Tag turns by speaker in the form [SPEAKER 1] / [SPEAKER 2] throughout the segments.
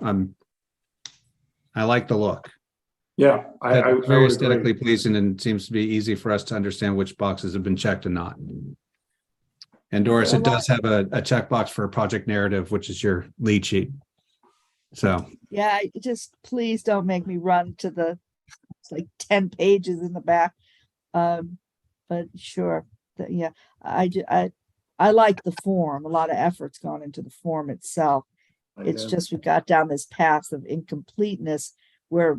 [SPEAKER 1] I'm, I like the look.
[SPEAKER 2] Yeah, I, I I
[SPEAKER 1] It's Very
[SPEAKER 2] would agree.
[SPEAKER 1] aesthetically pleasing and seems to be easy for us to understand which boxes have been checked and not. And Doris, it does have a, a checkbox for a project narrative, which is your lead sheet. So,
[SPEAKER 3] Yeah, I- just please don't make me run to the, it's like ten pages in the back. Um, but sure, that, yeah, I, ju- I, I like the form. A lot of effort's gone into the form itself. It's
[SPEAKER 2] Yeah.
[SPEAKER 3] just we got down this path of incompleteness where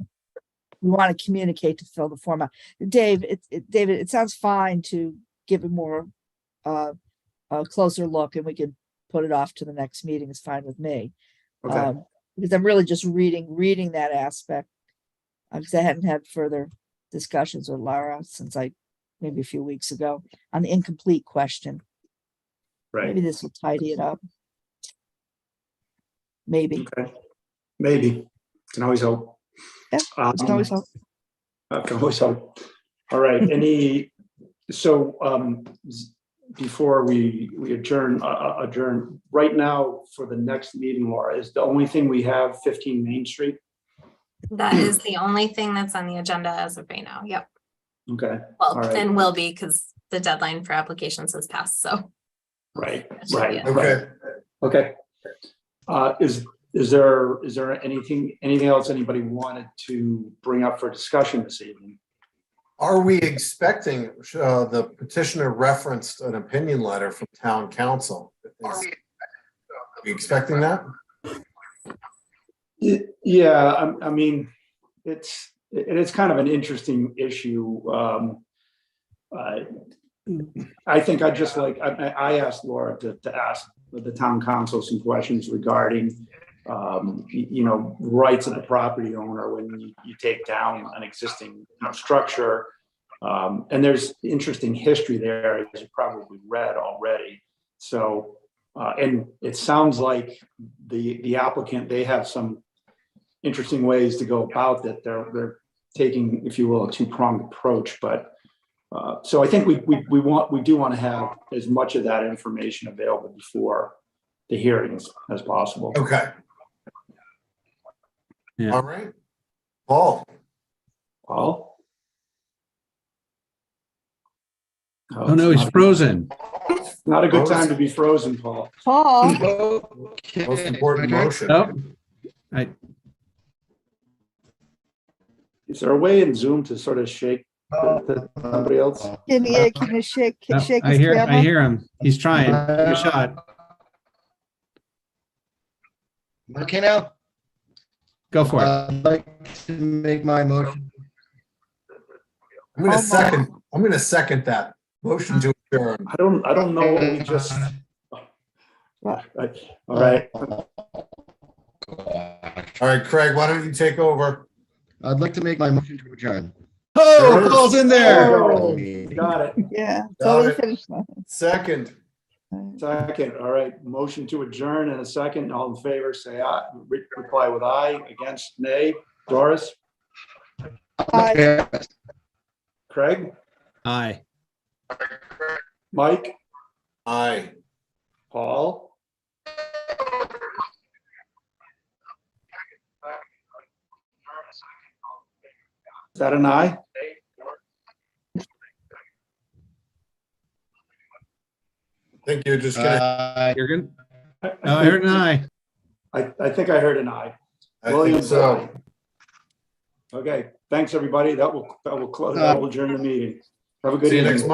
[SPEAKER 3] we want to communicate to fill the form out. Dave, it, it, David, it sounds fine to give a more, uh, a closer look and we can put it off to the next meeting. It's fine with me
[SPEAKER 2] Okay,
[SPEAKER 3] um, because I'm really just reading, reading that aspect. uh, Because I hadn't had further discussions with Lara since I, maybe a few weeks ago, on the incomplete question. Maybe
[SPEAKER 2] right,
[SPEAKER 3] this will tidy it up. Maybe.
[SPEAKER 2] okay. Maybe, can always hope.
[SPEAKER 3] Yeah,
[SPEAKER 2] Um,
[SPEAKER 3] It's always hope.
[SPEAKER 2] Uh, Can always help. All right, any, so um, s- before we, we adjourn, uh, uh, adjourn, right now for the next meeting, Laura, is the only thing we have 15 Main Street?
[SPEAKER 4] That is the only thing that's on the agenda as of right now. Yep.
[SPEAKER 2] Okay,
[SPEAKER 4] Well,
[SPEAKER 2] All right.
[SPEAKER 4] and will be because the deadline for applications has passed. So
[SPEAKER 2] right,
[SPEAKER 4] That should be
[SPEAKER 2] right,
[SPEAKER 4] it.
[SPEAKER 2] right. Okay. Uh, Is, is there, is there anything, anything else anybody wanted to bring up for discussion this evening?
[SPEAKER 5] Are we expecting, uh, the petitioner referenced an opinion letter from town council? Are we expecting that?
[SPEAKER 2] Y- Yeah, I, I mean, it's, it is kind of an interesting issue. Um, I, I think I just like, I, I I asked Laura to, to ask the town council some questions regarding, um, y- you know, rights of the property owner when you, you take down an existing, you know, structure. Um, and there's interesting history there, as you probably read already. So, uh, and it sounds like the, the applicant, they have some interesting ways to go about that. They're, they're taking, if you will, a two-pronged approach, but, uh, so I think we, we, we want, we do want to have as much of that information available before the hearings as possible.
[SPEAKER 5] Okay.
[SPEAKER 1] Yeah.
[SPEAKER 5] All right. Paul,
[SPEAKER 2] Paul?
[SPEAKER 1] oh no, he's
[SPEAKER 2] it's not-
[SPEAKER 1] frozen.
[SPEAKER 2] Not a good time to be frozen, Paul.
[SPEAKER 3] Paul,
[SPEAKER 5] most important motion.
[SPEAKER 1] Nope.
[SPEAKER 2] Is there a way in Zoom to sort of shake the- the- somebody else?
[SPEAKER 3] can you, can you shake,
[SPEAKER 1] No,
[SPEAKER 3] shake
[SPEAKER 1] I
[SPEAKER 3] his
[SPEAKER 1] hear, I
[SPEAKER 3] camera?
[SPEAKER 1] hear him. He's trying. Give it
[SPEAKER 2] Uh,
[SPEAKER 1] a shot.
[SPEAKER 6] Okay, now,
[SPEAKER 1] Go for it.
[SPEAKER 6] uh, I'd like to make my motion.
[SPEAKER 5] I'm gonna
[SPEAKER 3] Oh, my.
[SPEAKER 5] second, I'm gonna second that. Motion to adjourn.
[SPEAKER 2] I don't, I don't know what we just, all right.
[SPEAKER 5] All right, Craig, why don't you take over?
[SPEAKER 6] I'd like to make my motion to adjourn.
[SPEAKER 1] Oh, Paul's in there.
[SPEAKER 2] There we go. Got it.
[SPEAKER 3] Yeah,
[SPEAKER 5] Got
[SPEAKER 3] totally
[SPEAKER 5] it.
[SPEAKER 3] finished. now.
[SPEAKER 5] Second.
[SPEAKER 2] Second, all right, motion to adjourn and a second, all in favor, say aye, Re- reply with aye, against nay. Doris,
[SPEAKER 3] Aye.
[SPEAKER 2] Craig,
[SPEAKER 1] Aye.
[SPEAKER 2] Mike,
[SPEAKER 5] Aye.
[SPEAKER 2] Paul. Is that an aye?
[SPEAKER 5] I think you're just gonna.
[SPEAKER 6] Uh,
[SPEAKER 1] You're good.
[SPEAKER 2] I-
[SPEAKER 1] Oh, I heard an aye.
[SPEAKER 2] I, I think I heard an aye.
[SPEAKER 5] I think
[SPEAKER 2] Williams,
[SPEAKER 5] so.
[SPEAKER 2] aye. Okay, thanks, everybody. That will, that will close, that will adjourn the meeting. Have a good
[SPEAKER 5] See you
[SPEAKER 2] evening.
[SPEAKER 5] next month.